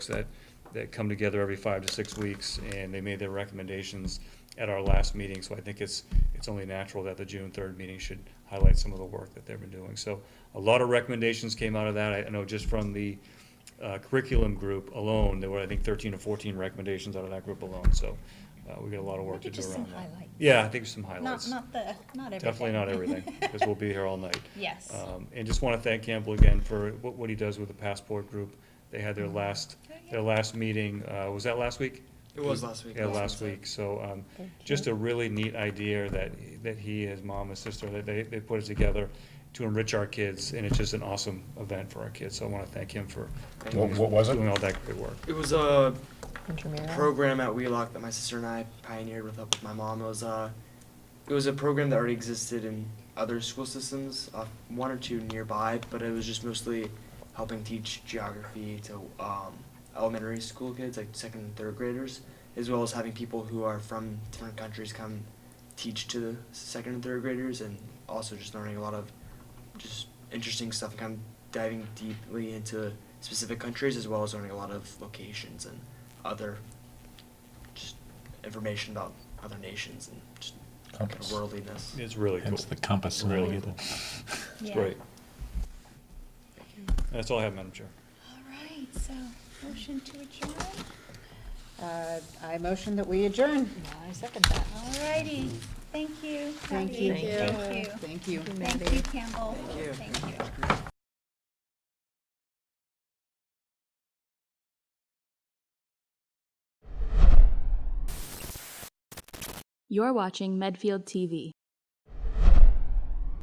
that, that come together every five to six weeks, and they made their recommendations at our last meeting, so I think it's, it's only natural that the June third meeting should highlight some of the work that they've been doing. So a lot of recommendations came out of that, I I know just from the uh, curriculum group alone, there were, I think, thirteen or fourteen recommendations out of that group alone, so uh, we got a lot of work to Maybe do just some around that. highlights. Yeah, I think some Not, highlights. not the, not everything. Definitely not everything, because we'll be here all night. Yes. Um, And just want to thank Campbell again for what, what he does with the Passport Group. They had their last, their last meeting, uh, was that last week? It was last week. Yeah, last week, so, um, just a really neat idea that, that he, his mom, his sister, that they, they put it together to enrich our kids, and it's just an awesome event for our kids, so I want to thank him for Thank What- what was it? doing all that great work. It was a Intramural. program at Wheelock that my sister and I pioneered with, uh, with my mom. It was a, it was a program that already existed in other school systems, uh, one or two nearby, but it was just mostly helping teach geography to um, elementary school kids, like second and third graders, as well as having people who are from different countries come teach to the second and third graders, and also just learning a lot of just interesting stuff and kind of diving deeply into specific countries as well as learning a lot of locations and other just information about other nations and just kind of Compass. worldliness. It's really cool. Hence the compass. Really really. cool. It's Yeah. great. That's all I have, Madam Chair. All right, so, motion to adjourn? Uh, I motion that we adjourn. I second that. All righty, thank you. Thank Abby. you. Thank you. Thank you. Thank you, Campbell. Thank you. Thank you. You're watching Medfield TV.